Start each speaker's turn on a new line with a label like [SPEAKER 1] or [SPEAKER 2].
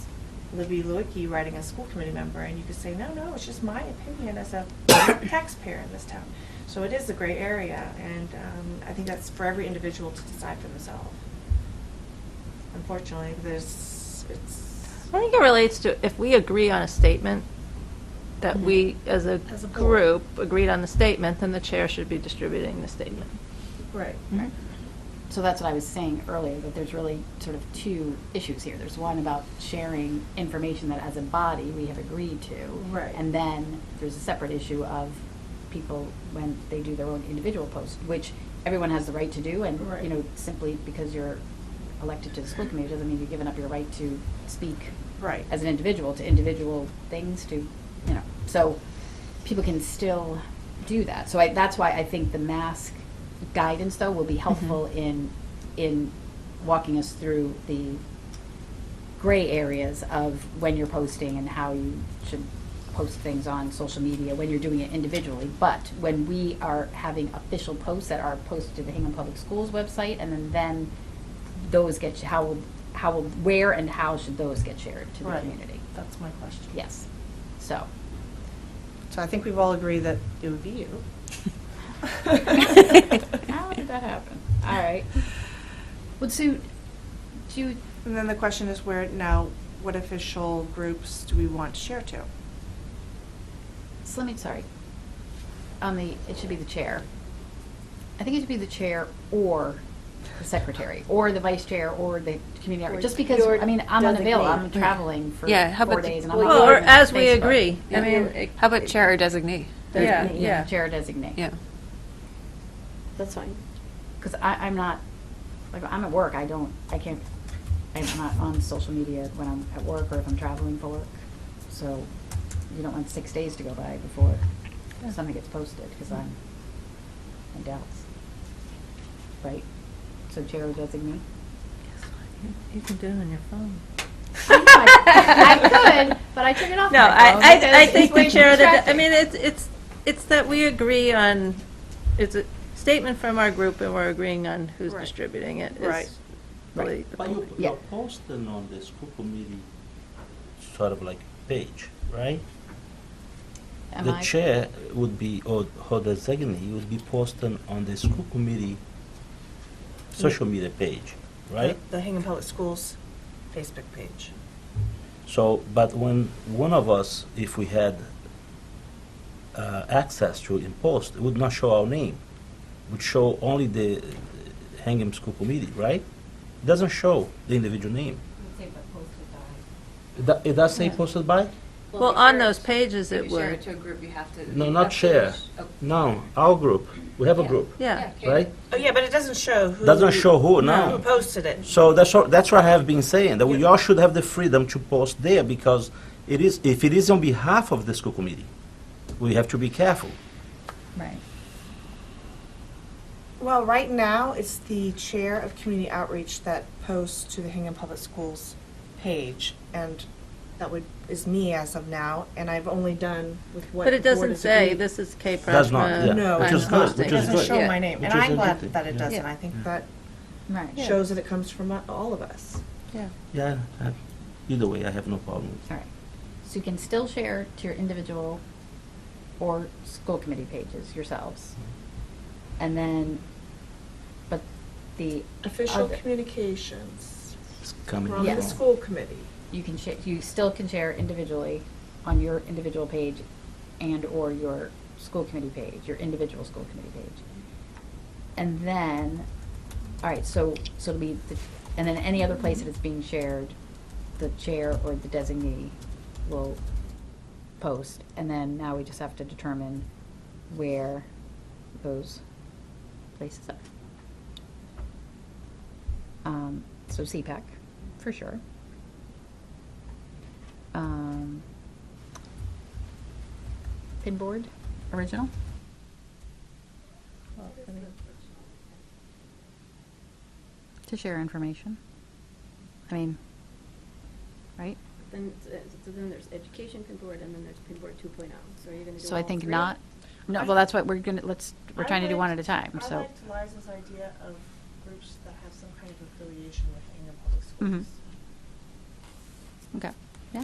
[SPEAKER 1] Libby Lewicky writing a school committee member, and you could say, no, no, it's just my opinion as a taxpayer in this town. So it is a gray area, and um, I think that's for every individual to decide for themselves. Unfortunately, there's, it's.
[SPEAKER 2] I think it relates to, if we agree on a statement, that we, as a
[SPEAKER 1] As a board.
[SPEAKER 2] group, agreed on the statement, then the chair should be distributing the statement.
[SPEAKER 1] Right.
[SPEAKER 3] So that's what I was saying earlier, that there's really sort of two issues here. There's one about sharing information that as a body we have agreed to.
[SPEAKER 1] Right.
[SPEAKER 3] And then there's a separate issue of people when they do their own individual post, which everyone has the right to do and,
[SPEAKER 1] Right.
[SPEAKER 3] you know, simply because you're elected to the school committee doesn't mean you're giving up your right to speak
[SPEAKER 1] Right.
[SPEAKER 3] as an individual to individual things to, you know, so people can still do that. So I, that's why I think the mask guidance though will be helpful in in walking us through the gray areas of when you're posting and how you should post things on social media when you're doing it individually. But when we are having official posts that are posted to the Hingham Public Schools website and then, then those get, how, will how, will where and how should those get shared to the
[SPEAKER 1] Right.
[SPEAKER 3] community?
[SPEAKER 1] That's my question.
[SPEAKER 3] Yes, so.
[SPEAKER 4] So I think we've all agreed that it would be you.
[SPEAKER 3] How did that happen? All right. Well, Sue, do you,
[SPEAKER 4] And then the question is where, now, what official groups do we want to share to?
[SPEAKER 3] so let me, sorry. On the, it should be the chair. I think it should be the chair or the secretary, or the vice chair, or the community outreach, just because, I mean, I'm unavailable, I'm traveling for
[SPEAKER 5] Yeah, how
[SPEAKER 3] four
[SPEAKER 5] about the-
[SPEAKER 3] days and I'm
[SPEAKER 5] well,
[SPEAKER 3] not
[SPEAKER 2] Or
[SPEAKER 3] on
[SPEAKER 2] as we
[SPEAKER 3] Facebook.
[SPEAKER 2] agree. I
[SPEAKER 3] Yeah.
[SPEAKER 2] mean, it-
[SPEAKER 5] How about chair or designee?
[SPEAKER 3] The-
[SPEAKER 2] Yeah, yeah.
[SPEAKER 3] Chair designate.
[SPEAKER 5] Yeah.
[SPEAKER 6] That's fine.
[SPEAKER 3] Because I, I'm not, like, I'm at work, I don't, I can't, I'm not on social media when I'm at work or if I'm traveling for work. So you don't want six days to go by before something gets posted, because I'm in Dallas. Right? So chair or designee?
[SPEAKER 2] You can do it on your phone.
[SPEAKER 3] I could, but I took it off
[SPEAKER 2] No,
[SPEAKER 3] my
[SPEAKER 2] I,
[SPEAKER 3] phone because
[SPEAKER 2] I, I
[SPEAKER 3] it's
[SPEAKER 2] think
[SPEAKER 3] way
[SPEAKER 2] the
[SPEAKER 3] too
[SPEAKER 2] chair, of the- I
[SPEAKER 3] distracting.
[SPEAKER 2] mean, it's, it's, it's that we agree on, it's a statement from our group and we're agreeing on who's
[SPEAKER 4] Right.
[SPEAKER 2] distributing it. is
[SPEAKER 4] Right.
[SPEAKER 2] really the
[SPEAKER 7] But you,
[SPEAKER 2] point.
[SPEAKER 3] Yeah.
[SPEAKER 7] you're posting on the school committee sort of like page, right?
[SPEAKER 3] Am
[SPEAKER 7] the
[SPEAKER 3] I-
[SPEAKER 7] chair would be, or, or the designee would be posting on the school committee social media page, right?
[SPEAKER 4] The Hingham Public Schools Facebook page.
[SPEAKER 7] So, but when one of us, if we had uh, access to it in post, it would not show our name. It would show only the uh, Hingham School Committee, right? It doesn't show the individual name. It do- It does say posted by?
[SPEAKER 2] Well, on those pages it
[SPEAKER 8] Share
[SPEAKER 2] would,
[SPEAKER 8] it to a group, you have to.
[SPEAKER 7] No,
[SPEAKER 8] you
[SPEAKER 7] not
[SPEAKER 8] have to
[SPEAKER 7] share.
[SPEAKER 8] sh- oh,
[SPEAKER 7] No, our group. We have a
[SPEAKER 3] Yeah.
[SPEAKER 7] group,
[SPEAKER 2] yeah.
[SPEAKER 8] okay.
[SPEAKER 7] right?
[SPEAKER 4] Oh, yeah, but it doesn't show who.
[SPEAKER 7] Doesn't show who, no.
[SPEAKER 4] Who posted it.
[SPEAKER 7] So that's what, that's what I have been saying, that we all should have the freedom to post there because it is, if it is on behalf of the school committee, we have to be careful.
[SPEAKER 3] Right.
[SPEAKER 4] Well, right now, it's the chair of community outreach that posts to the Hingham Public Schools page, and that would, is me as of now, and I've only done with what.
[SPEAKER 2] But it
[SPEAKER 4] the board
[SPEAKER 2] doesn't
[SPEAKER 4] has
[SPEAKER 2] say,
[SPEAKER 4] agreed.
[SPEAKER 2] this is K. uh,
[SPEAKER 7] Does not,
[SPEAKER 2] Prashna,
[SPEAKER 7] yeah.
[SPEAKER 4] No,
[SPEAKER 7] Which
[SPEAKER 2] I'm
[SPEAKER 7] is good,
[SPEAKER 2] posting.
[SPEAKER 7] which
[SPEAKER 4] It
[SPEAKER 7] is
[SPEAKER 4] doesn't
[SPEAKER 7] good.
[SPEAKER 4] show my name,
[SPEAKER 7] Which
[SPEAKER 4] and
[SPEAKER 7] is
[SPEAKER 4] I'm
[SPEAKER 7] a
[SPEAKER 4] glad
[SPEAKER 7] good thing,
[SPEAKER 4] that it
[SPEAKER 7] yeah.
[SPEAKER 4] doesn't. I think that
[SPEAKER 3] Right. All
[SPEAKER 4] shows that it comes from uh, all of us.
[SPEAKER 2] Yeah.
[SPEAKER 7] Yeah, I- either way, I have no problem with
[SPEAKER 3] right. So you can still share to your individual or school committee pages yourselves. And then, but the.
[SPEAKER 4] Official
[SPEAKER 3] other-
[SPEAKER 4] communications
[SPEAKER 7] It's coming
[SPEAKER 4] from
[SPEAKER 3] Yes.
[SPEAKER 4] the
[SPEAKER 7] along.
[SPEAKER 4] school committee.
[SPEAKER 3] You can share, you still can share individually on your individual page and/or your school committee page, your individual school committee page. And then, all right, so, so it'll be, the- and then any other place that it's being shared, the chair or the designee will post. And then now we just have to determine where those places are. Um, So CPAC, for sure. Um, Pinboard, original? To share information. I mean, right?
[SPEAKER 6] Then, uh, so then there's education pinboard, and then there's pinboard 2.0. oh. So are you going to do
[SPEAKER 3] So I
[SPEAKER 6] all
[SPEAKER 3] think
[SPEAKER 6] three?
[SPEAKER 3] not, no, well, that's what we're gonna, let's, we're trying to do one at a time, so.
[SPEAKER 9] I liked Liza's idea of groups that have some kind of affiliation with Hingham Public
[SPEAKER 3] Mhm.
[SPEAKER 9] Schools.
[SPEAKER 3] Okay.